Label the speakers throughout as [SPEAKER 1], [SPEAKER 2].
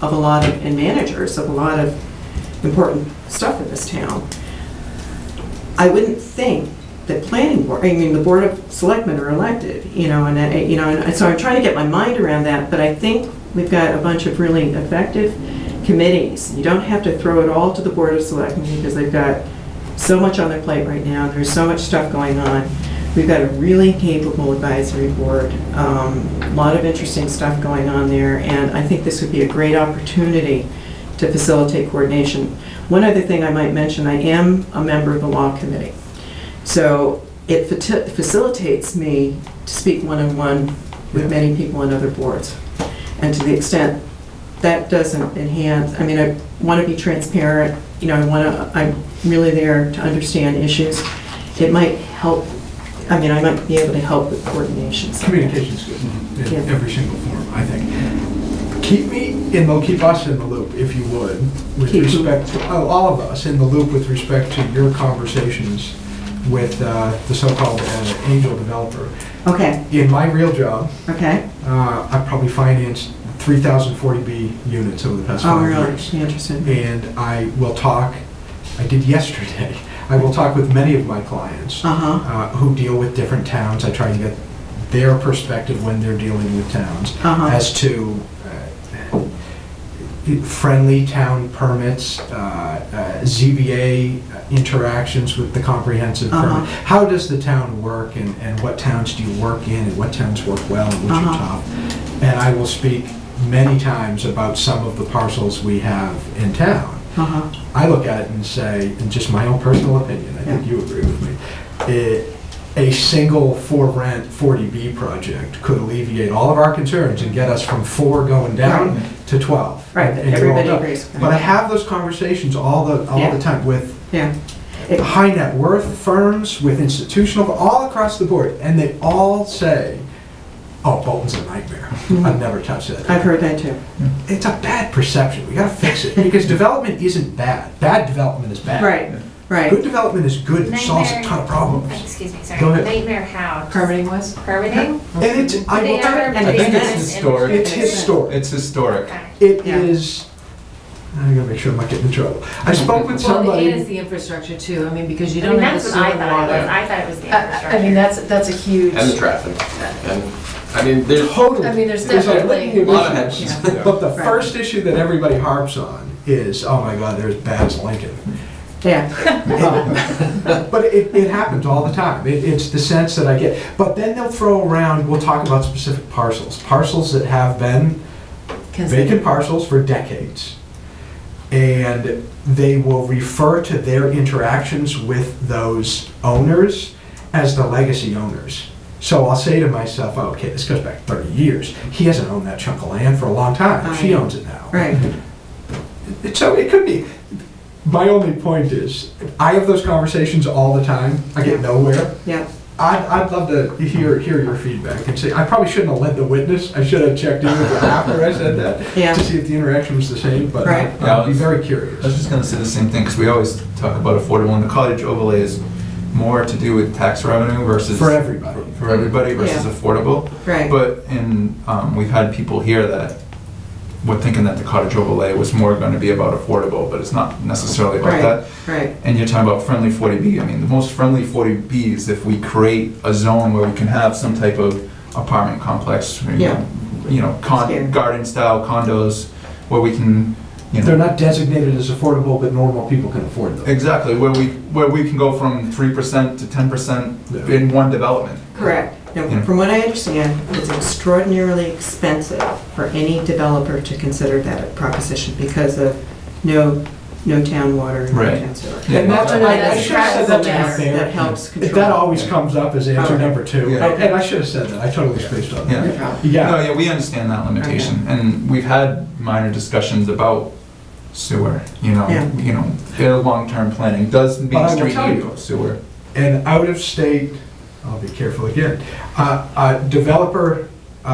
[SPEAKER 1] of a lot of, and managers of a lot of important stuff in this town. I wouldn't think that planning board, I mean, the Board of Selectmen are elected, you know, and, I- you know, and so I'm trying to get my mind around that, but I think we've got a bunch of really effective committees. You don't have to throw it all to the Board of Selectmen because they've got so much on their plate right now, there's so much stuff going on. We've got a really capable advisory board, um, a lot of interesting stuff going on there, and I think this would be a great opportunity to facilitate coordination. One other thing I might mention, I am a member of the law committee. So it fati- facilitates me to speak one-on-one with many people on other boards. And to the extent that doesn't enhance, I mean, I want to be transparent, you know, I want to, I'm really there to understand issues. It might help, I mean, I might be able to help with coordination. somehow.
[SPEAKER 2] Communication's good
[SPEAKER 1] Yeah.
[SPEAKER 2] in every single form, I think. Keep me in the, keep us in the loop, if you would, with
[SPEAKER 1] Keep who?
[SPEAKER 2] respect, to oh, all of us in the loop with respect to your conversations with uh, the so-called uh, angel developer.
[SPEAKER 1] Okay,
[SPEAKER 2] In my real job,
[SPEAKER 1] okay.
[SPEAKER 2] uh, I've probably financed 3,040B units over the past
[SPEAKER 1] Oh,
[SPEAKER 2] five
[SPEAKER 1] really?
[SPEAKER 2] years.
[SPEAKER 1] Interesting.
[SPEAKER 2] And I will talk, I did yesterday, I will talk with many of my clients
[SPEAKER 1] Uh-huh,
[SPEAKER 2] uh, who deal with different towns. I try and get their perspective when they're dealing with towns
[SPEAKER 1] Uh-huh.
[SPEAKER 2] as to uh, friendly town permits, uh, uh, ZBA interactions with the comprehensive
[SPEAKER 1] Uh-huh.
[SPEAKER 2] permit. How does the town work and, and what towns do you work in and what towns work well and which are
[SPEAKER 1] Uh-huh.
[SPEAKER 2] top? And I will speak many times about some of the parcels we have in town.
[SPEAKER 1] uh-huh,
[SPEAKER 2] I look at it and say, in just my own personal opinion, I think
[SPEAKER 1] Yeah.
[SPEAKER 2] you agree with me, it, a single for rent 40B project could alleviate all of our concerns and get us from four going down to 12.
[SPEAKER 1] Right,
[SPEAKER 2] and-
[SPEAKER 1] that
[SPEAKER 2] and you're all
[SPEAKER 1] everybody
[SPEAKER 2] done.
[SPEAKER 1] agrees with that.
[SPEAKER 2] But I have those conversations all the, all
[SPEAKER 1] Yeah.
[SPEAKER 2] the time with
[SPEAKER 1] yeah. It-
[SPEAKER 2] high net worth firms, with institutional, all across the board, and they all say, oh, Bolton's a nightmare. I've never touched that
[SPEAKER 1] Mm-hmm. I've heard that too.
[SPEAKER 2] it's a bad perception. We gotta fix it because development isn't bad. Bad development is bad.
[SPEAKER 1] Right,
[SPEAKER 2] Good
[SPEAKER 1] right.
[SPEAKER 2] development is good and solves a ton of problems.
[SPEAKER 3] Excuse me, sorry.
[SPEAKER 2] Go ahead.
[SPEAKER 3] Nightmare how?
[SPEAKER 4] Permitting was?
[SPEAKER 3] Permitting?
[SPEAKER 2] And it's I will tell you,
[SPEAKER 4] I think it's historic.
[SPEAKER 2] it's his story.
[SPEAKER 5] It's historic.
[SPEAKER 2] It
[SPEAKER 1] Yeah.
[SPEAKER 2] is. I gotta make sure I'm not getting in trouble. I spoke with
[SPEAKER 4] Well, it is
[SPEAKER 2] somebody.
[SPEAKER 4] the infrastructure too, I mean, because you
[SPEAKER 3] I
[SPEAKER 4] don't
[SPEAKER 3] mean,
[SPEAKER 4] have
[SPEAKER 3] that's what
[SPEAKER 4] the sewer
[SPEAKER 3] I
[SPEAKER 4] and
[SPEAKER 3] thought it was.
[SPEAKER 4] water.
[SPEAKER 3] I thought it was the
[SPEAKER 4] Uh, I I mean,
[SPEAKER 3] infrastructure.
[SPEAKER 4] that's, that's a huge,
[SPEAKER 5] And the traffic. And, I mean, there's
[SPEAKER 2] Totally.
[SPEAKER 4] I mean, there's
[SPEAKER 2] a
[SPEAKER 4] definitely-
[SPEAKER 2] litany of
[SPEAKER 5] A lot of
[SPEAKER 2] issues.
[SPEAKER 5] heads. Yeah.
[SPEAKER 2] But the
[SPEAKER 1] Right.
[SPEAKER 2] first issue that everybody harps on is, oh my God, they're as bad as Lincoln.
[SPEAKER 1] Yeah,
[SPEAKER 2] But it, it happens all the time. It, it's the sense that I get. But then they'll throw around, we'll talk about specific parcels, parcels that have been vacant
[SPEAKER 4] considered.
[SPEAKER 2] parcels for decades. And they will refer to their interactions with those owners as the legacy owners. So I'll say to myself, "Oh, okay, this goes back 30 years. He hasn't owned that chunk of land for a long time. She
[SPEAKER 1] Right.
[SPEAKER 2] owns it now.
[SPEAKER 1] right.
[SPEAKER 2] It- So it could be. My only point is, I have those conversations all the time. I get nowhere.
[SPEAKER 1] Yeah,
[SPEAKER 2] I'd, I'd love to hear, hear your feedback and say, I probably shouldn't have led the witness. I should have checked in with her after I said that
[SPEAKER 1] Yeah.
[SPEAKER 2] to see if the interaction was the same, but uh,
[SPEAKER 1] Right.
[SPEAKER 2] I'd be very curious.
[SPEAKER 5] I was just gonna say the same thing, because we always talk about affordable, and the cottage overlay is more to do with tax revenue versus.
[SPEAKER 2] For everybody.
[SPEAKER 5] For everybody versus
[SPEAKER 1] Yeah.
[SPEAKER 5] affordable.
[SPEAKER 1] right.
[SPEAKER 5] But, and, um, we've had people here that were thinking that the cottage overlay was more gonna be about affordable, but it's not necessarily about
[SPEAKER 1] Right.
[SPEAKER 5] that.
[SPEAKER 1] Right,
[SPEAKER 5] And you're talking about friendly 40B. I mean, the most friendly 40B is if we create a zone where we can have some type of apartment complex, you
[SPEAKER 1] Yeah.
[SPEAKER 5] know, you know,
[SPEAKER 1] Scary.
[SPEAKER 5] con- garden style condos where we can, you
[SPEAKER 2] They're
[SPEAKER 5] know,
[SPEAKER 2] not designated as affordable, but normal people can afford them.
[SPEAKER 5] exactly where we where we can go from three percent to ten percent
[SPEAKER 2] Yeah.
[SPEAKER 5] in one development.
[SPEAKER 1] correct.
[SPEAKER 2] Hmm.
[SPEAKER 1] Now, from what I understand, it's extraordinarily expensive for any developer to consider that a proposition because of no, no town water, no
[SPEAKER 5] Right.
[SPEAKER 1] town sewer.
[SPEAKER 5] Yeah.
[SPEAKER 2] And that's,
[SPEAKER 4] No, no,
[SPEAKER 2] I- I
[SPEAKER 4] that's
[SPEAKER 2] should have said that
[SPEAKER 4] practical
[SPEAKER 2] to be
[SPEAKER 1] matter.
[SPEAKER 2] fair.
[SPEAKER 1] That helps control.
[SPEAKER 2] That always comes up as answer
[SPEAKER 1] Okay.
[SPEAKER 2] number two,
[SPEAKER 5] Yeah.
[SPEAKER 2] and I should have said that. I totally spaced on that.
[SPEAKER 5] Yeah.
[SPEAKER 1] No problem.
[SPEAKER 2] Yeah.
[SPEAKER 5] No, yeah, we understand that limitation, and we've had minor discussions about sewer. You know,
[SPEAKER 1] Yeah.
[SPEAKER 5] you know, their long-term planning does
[SPEAKER 2] But I
[SPEAKER 5] Main
[SPEAKER 2] will
[SPEAKER 5] Street
[SPEAKER 2] tell
[SPEAKER 5] need
[SPEAKER 2] you-
[SPEAKER 5] sewer?
[SPEAKER 2] an out-of-state, I'll be careful again, uh, a developer uh,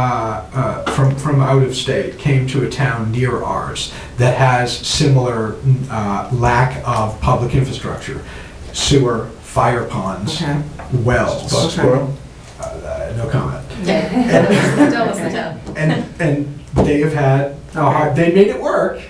[SPEAKER 2] uh, from, from out of state came to a town near ours that has similar uh, lack of public infrastructure, sewer, fire ponds,
[SPEAKER 1] Okay.
[SPEAKER 2] wells,
[SPEAKER 5] Box
[SPEAKER 1] Okay.
[SPEAKER 5] squirrel?
[SPEAKER 2] Uh, no comment.
[SPEAKER 4] Yeah. That was the town.
[SPEAKER 2] And, and they have had Uh,
[SPEAKER 1] Okay.
[SPEAKER 2] They made it work,